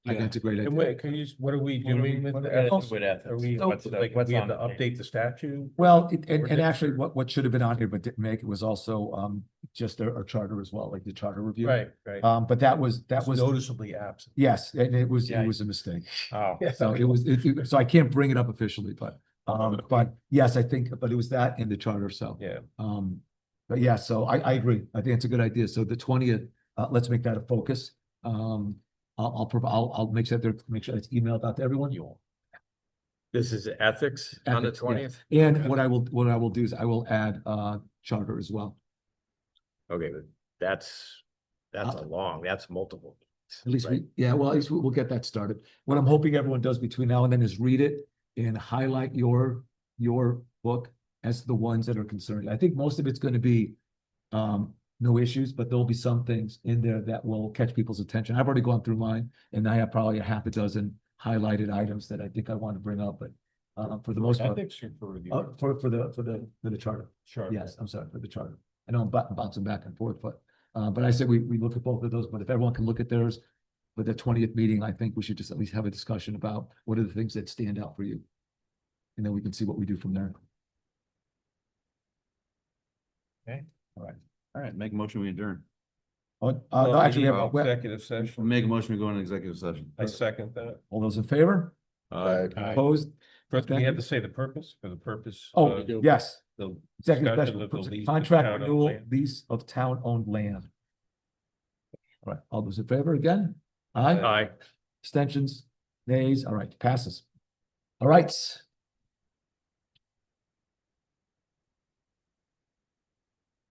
I can Yeah. integrate it. And wait, can you, what are we What are we- doing with what are we the doing with ethics? ethics? Are we, What's the- like, what's we on have to the update the statute? Well, it- and, Or and did- actually, what, what should have been on here, but didn't make it was also, um, just our, our charter as well, like the charter review. Right, right. Um, but that was, that It's was, Uh, Noticeably absent. yes, and it was, Yeah. it was a mistake. Oh. So it was, it, it- so I can't bring it up officially, but, um, but yes, I think, but it was that in the charter, so. Yeah. Um, but yeah, so I, I agree. I think it's a good idea. So the twentieth, uh, let's make that a focus. Um, I'll, I'll, prov- I'll, I'll make sure that they're, make sure it's emailed out to everyone. You all. This is ethics on the Ethics, yeah. twentieth? And what I will, what I will do is I will add, uh, charter as well. Okay, but that's, that's a Uh, long, that's multiple. meetings, At least right? we, yeah, well, at least we'll, we'll get that started. What I'm hoping everyone does between now and then is read it and highlight your, your book as the ones that are concerned. I think most of it's gonna be um, no issues, but there'll be some things in there that will catch people's attention. I've already gone through mine and I have probably a half a dozen highlighted items that I think I want to bring up, but uh, for the most part, Ethics or for uh, the. for, for the, for the, for the charter. Sure. Yes, I'm sorry, for the charter. I know I'm bu- bouncing back and forth, but, uh, but I said we, we look at both of those, but if everyone can look at theirs. For the twentieth meeting, I think we should just at least have a discussion about what are the things that stand out for you. And then we can see what we do from there. All right, make a motion, we adjourn. Oh, uh, no, actually, we have- we have- Executive session. Make a motion, we go into executive session. I second that. all those in favor? Aye. Opposed? First, we Thank have you. to say the purpose, for the purpose. Oh, of yes, The executive Discussion session, of the lease of contract town-owned renewal, land. lease of town-owned land. All right, all those in favor again? Aye, Aye. extensions, nays, all right, passes. All right,